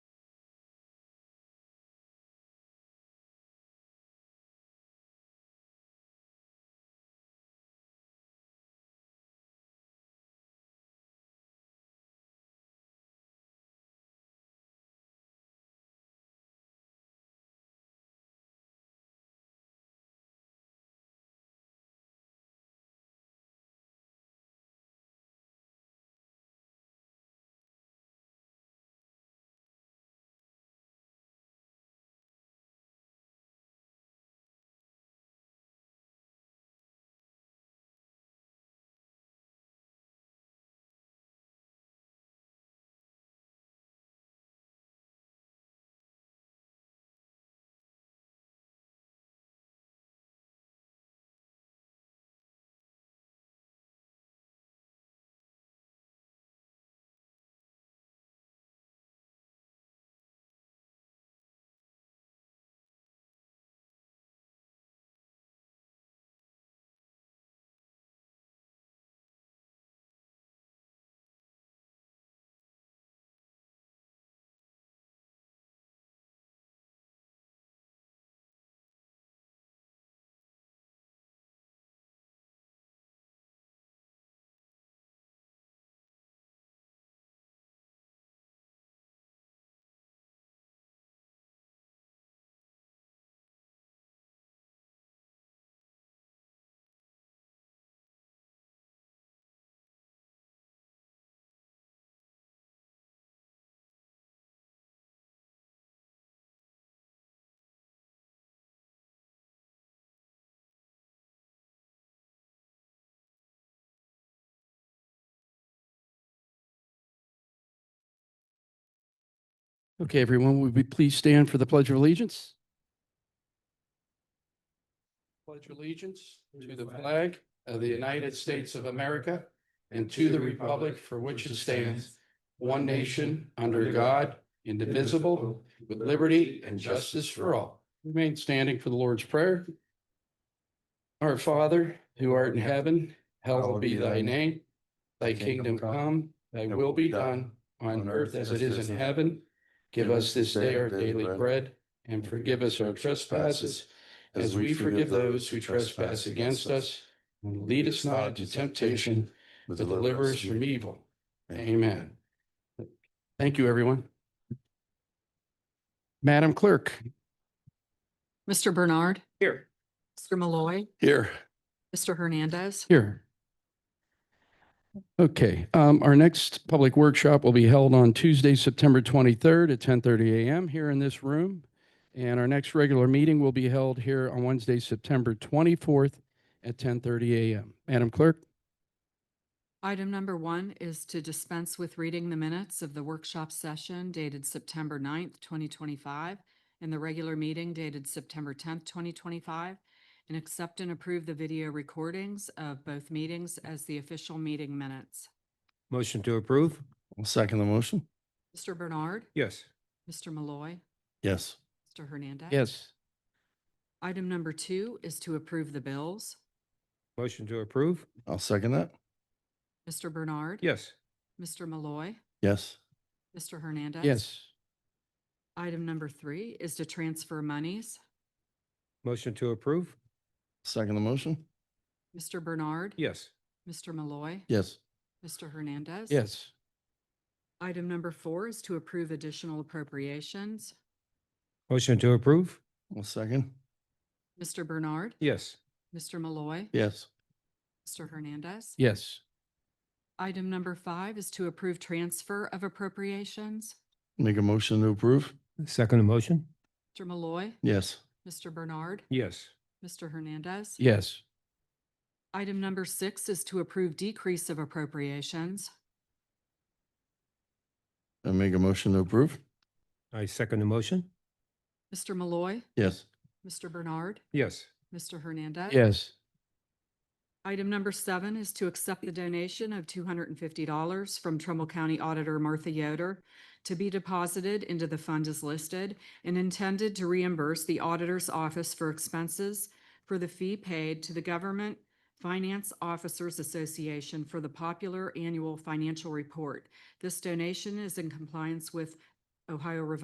Okay, everyone, would we please stand for the Pledge of Allegiance? Pledge allegiance to the flag of the United States of America and to the republic for which it stands, one nation, under God, indivisible, with liberty and justice for all. Remain standing for the Lord's Prayer. Our Father, who art in heaven, hallowed be thy name. Thy kingdom come, thy will be done on earth as it is in heaven. Give us this day our daily bread and forgive us our trespasses as we forgive those who trespass against us. And lead us not into temptation, but but deliver us from evil. Amen. Thank you, everyone. Madam Clerk. Mr. Bernard, Here. Mr. Malloy, Here. Mr. Hernandez. Here. Okay, um, our next public workshop will be held on Tuesday, September 23rd at 10:30 a.m. here in this room. And our next regular meeting will be held here on Wednesday, September 24th at 10:30 a.m. Madam Clerk? Item number one is to dispense with reading the minutes of the workshop session dated September 9th, twenty twenty-five, and the regular meeting dated September tenth, twenty twenty-five, and accept and approve the video recordings of both meetings as the official meeting minutes. Motion to approve? I'll second the motion. Mr. Bernard, Yes. Mr. Malloy, Yes. Mr. Hernandez. Yes. Item number two is to approve the bills. Motion to approve? I'll second that. Mr. Bernard. Yes. Mr. Malloy, Yes. Mr. Hernandez. Yes. Item number three is to transfer monies. Motion to approve? Second the motion. Mr. Bernard. Yes. Mr. Malloy. Yes. Mr. Hernandez. Yes. Item number four is to approve additional appropriations. Motion to approve? I'll second. Mr. Bernard. Yes. Mr. Malloy. Yes. Mr. Hernandez. Yes. Item number five is to approve transfer of appropriations. Make a motion to approve. Second motion? Mr. Malloy. Yes. Mr. Bernard. Yes. Mr. Hernandez. Yes. Item number six is to approve decrease of appropriations. And make a motion to approve. I second the motion? Mr. Malloy. Yes. Mr. Bernard. Yes. Mr. Hernandez. Yes. Item number seven is to accept the donation of two hundred and fifty dollars from Trumbull County Auditor Martha Yoder to be deposited into the fund as listed and intended to reimburse the auditor's office for expenses for the fee paid to the Government Finance Officers Association for the popular annual financial report. This donation is in compliance with Ohio Revised